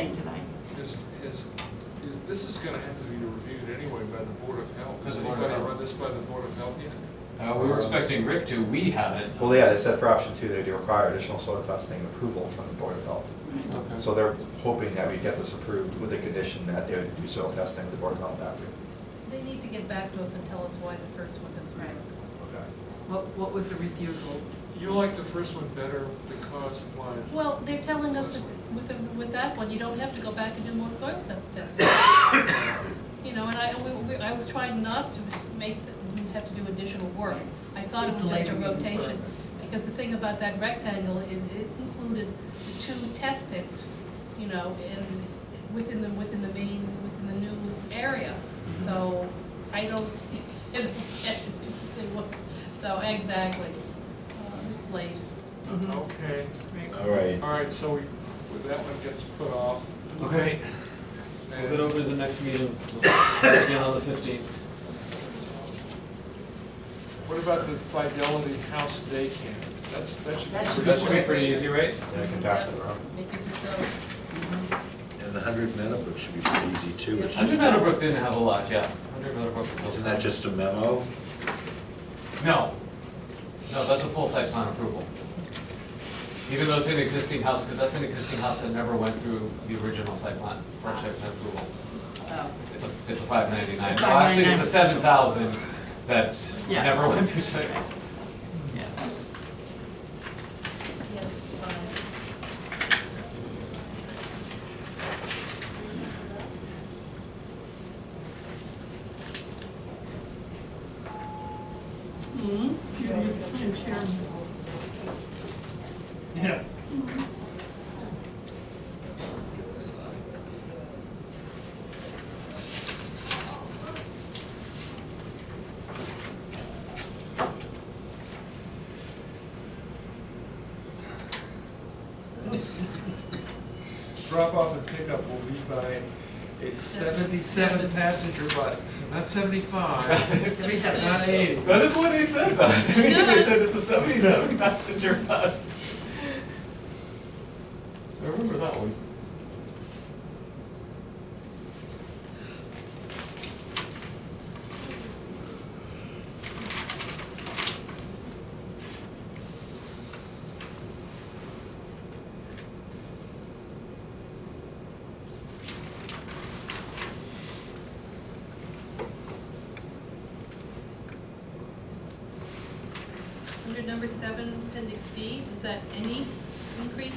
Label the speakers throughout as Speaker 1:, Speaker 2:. Speaker 1: thing tonight.
Speaker 2: Is, is, is, this is gonna have to be reviewed anyway by the Board of Health. Has
Speaker 3: By the Board of
Speaker 2: anybody
Speaker 3: Health.
Speaker 2: run this by the Board of Health yet?
Speaker 3: Uh, we were expecting Rick to, we haven't.
Speaker 4: Well, yeah, they said for option two, they do require additional soil testing approval from the Board of Health.
Speaker 3: Okay.
Speaker 4: So they're hoping that we get this approved with the condition that they would do soil testing with the Board of Health after.
Speaker 5: They need to get back to us and tell us why the first one doesn't work.
Speaker 4: Okay.
Speaker 6: What, what was the refusal?
Speaker 2: You like the first one better because why? Uh,
Speaker 5: Well, they're telling us that with, the- with that one, you don't have to go back and do more soil te- testing. You know, and I, we, we, I was trying not to make, the- have to do additional work. I thought it was just a
Speaker 6: Delay the meeting
Speaker 5: rotation,
Speaker 6: further.
Speaker 5: because the thing about that rectangle, it, it included the two test pits, you know, and within the, within the main, within the new area. So I don't, and- and- so exactly, Uh, it's late.
Speaker 2: Okay,
Speaker 6: Right.
Speaker 7: All right,
Speaker 2: all right, so we, well, that one gets put off.
Speaker 3: Okay, move it
Speaker 2: And
Speaker 3: over to the next meeting, We'll start again on the fifteenth.
Speaker 2: What about the Fidelity House Day Camp? That's, that should.
Speaker 1: That
Speaker 3: That should be pretty easy, right?
Speaker 4: They can pass it around.
Speaker 5: Make it so.
Speaker 7: and the Hundred Meadowbrook should be pretty easy too. It's
Speaker 3: Hundred
Speaker 7: just-
Speaker 3: Meadowbrook didn't have a lot, yeah. Hundred Meadowbrook.
Speaker 7: Isn't that just a memo?
Speaker 3: No, no, that's a full site plan approval. Even though it's an existing house, because that's an existing house that never went through the original site plan, or site plan approval.
Speaker 6: Oh,
Speaker 3: It's a, it's a five ninety-nine,
Speaker 6: It's a
Speaker 3: well, actually, it's
Speaker 6: 599.
Speaker 3: a seven thousand that
Speaker 6: Yeah.
Speaker 3: never went through site.
Speaker 6: yeah.
Speaker 1: Yes, fine.
Speaker 6: Mm-hmm.
Speaker 2: Yeah. Drop off and pickup will be by a seventy-seven passenger bus, not seventy-five, not eighty.
Speaker 3: That is what they said though. They said it's a seventy-seven passenger bus. So I remember that one.
Speaker 5: Under number seven, appendix B, is that any increase?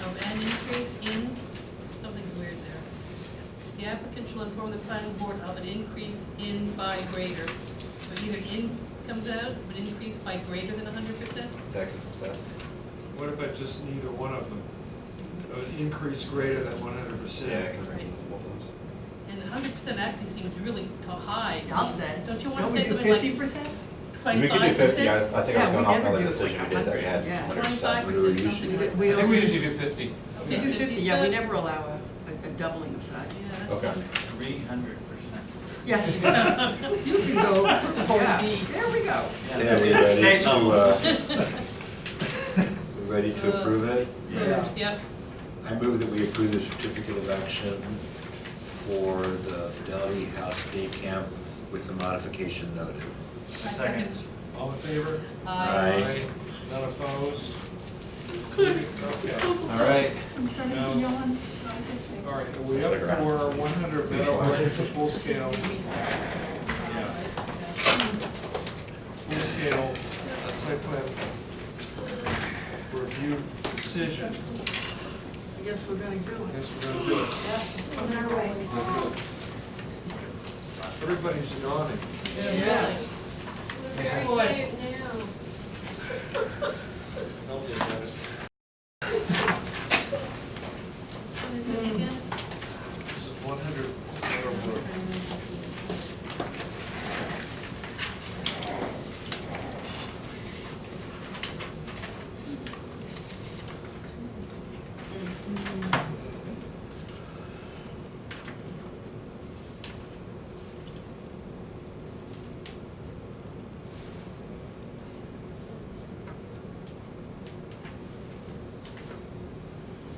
Speaker 5: Of an increase in, something's weird there. The applicant shall inform the planning board of an increase in by greater. So either in comes out, but increase by greater than hundred percent?
Speaker 4: That can, so,
Speaker 2: What about just neither one of them? An increase greater than one hundred percent?
Speaker 4: yeah, it can
Speaker 5: Right.
Speaker 4: both of those.
Speaker 5: And hundred percent actually seems really to- high.
Speaker 6: I'll say.
Speaker 5: Don't you wanna
Speaker 6: we
Speaker 5: say
Speaker 6: do
Speaker 5: something like
Speaker 6: fifty percent?
Speaker 4: We
Speaker 5: Twenty-five
Speaker 4: could do fifty,
Speaker 5: percent?
Speaker 4: I, I think I was
Speaker 6: Yeah,
Speaker 4: going
Speaker 6: we
Speaker 4: off
Speaker 6: never
Speaker 4: another
Speaker 6: do
Speaker 4: decision we
Speaker 6: like
Speaker 4: did that we
Speaker 6: 100,
Speaker 4: had
Speaker 6: yeah.
Speaker 4: hundred
Speaker 5: Twenty-five
Speaker 4: percent.
Speaker 7: We were
Speaker 5: percent,
Speaker 6: We
Speaker 3: I
Speaker 5: something like.
Speaker 3: think
Speaker 6: don't,
Speaker 3: we
Speaker 6: we
Speaker 3: usually do fifty.
Speaker 5: Okay,
Speaker 6: do fifty, yeah, we
Speaker 5: good.
Speaker 6: never allow a, a- a doubling of size.
Speaker 5: Yeah, that
Speaker 4: Okay.
Speaker 5: sounds-
Speaker 8: Three hundred percent.
Speaker 6: Yes, you do. You can go, yeah, there we go.
Speaker 7: Yeah, we ready
Speaker 8: State
Speaker 7: to,
Speaker 8: level.
Speaker 7: uh, we ready to approve it?
Speaker 8: Yeah.
Speaker 5: Yep,
Speaker 7: I move that we approve the certificate of action for the Fidelity House Day Camp with the modification noted.
Speaker 5: I second.
Speaker 2: All in favor?
Speaker 5: Aye.
Speaker 7: Aye.
Speaker 2: Not opposed? Okay.
Speaker 3: All right.
Speaker 2: Now- All right, are we
Speaker 4: Stick
Speaker 2: up
Speaker 4: around.
Speaker 2: for one hundred metal workers, a full scale, full scale uh, site plan review
Speaker 6: I
Speaker 2: decision?
Speaker 6: guess we're gonna do it.
Speaker 2: Yes, we're gonna do it. Everybody's yawning.
Speaker 5: Yeah.
Speaker 6: Yeah.
Speaker 5: We're very quiet now.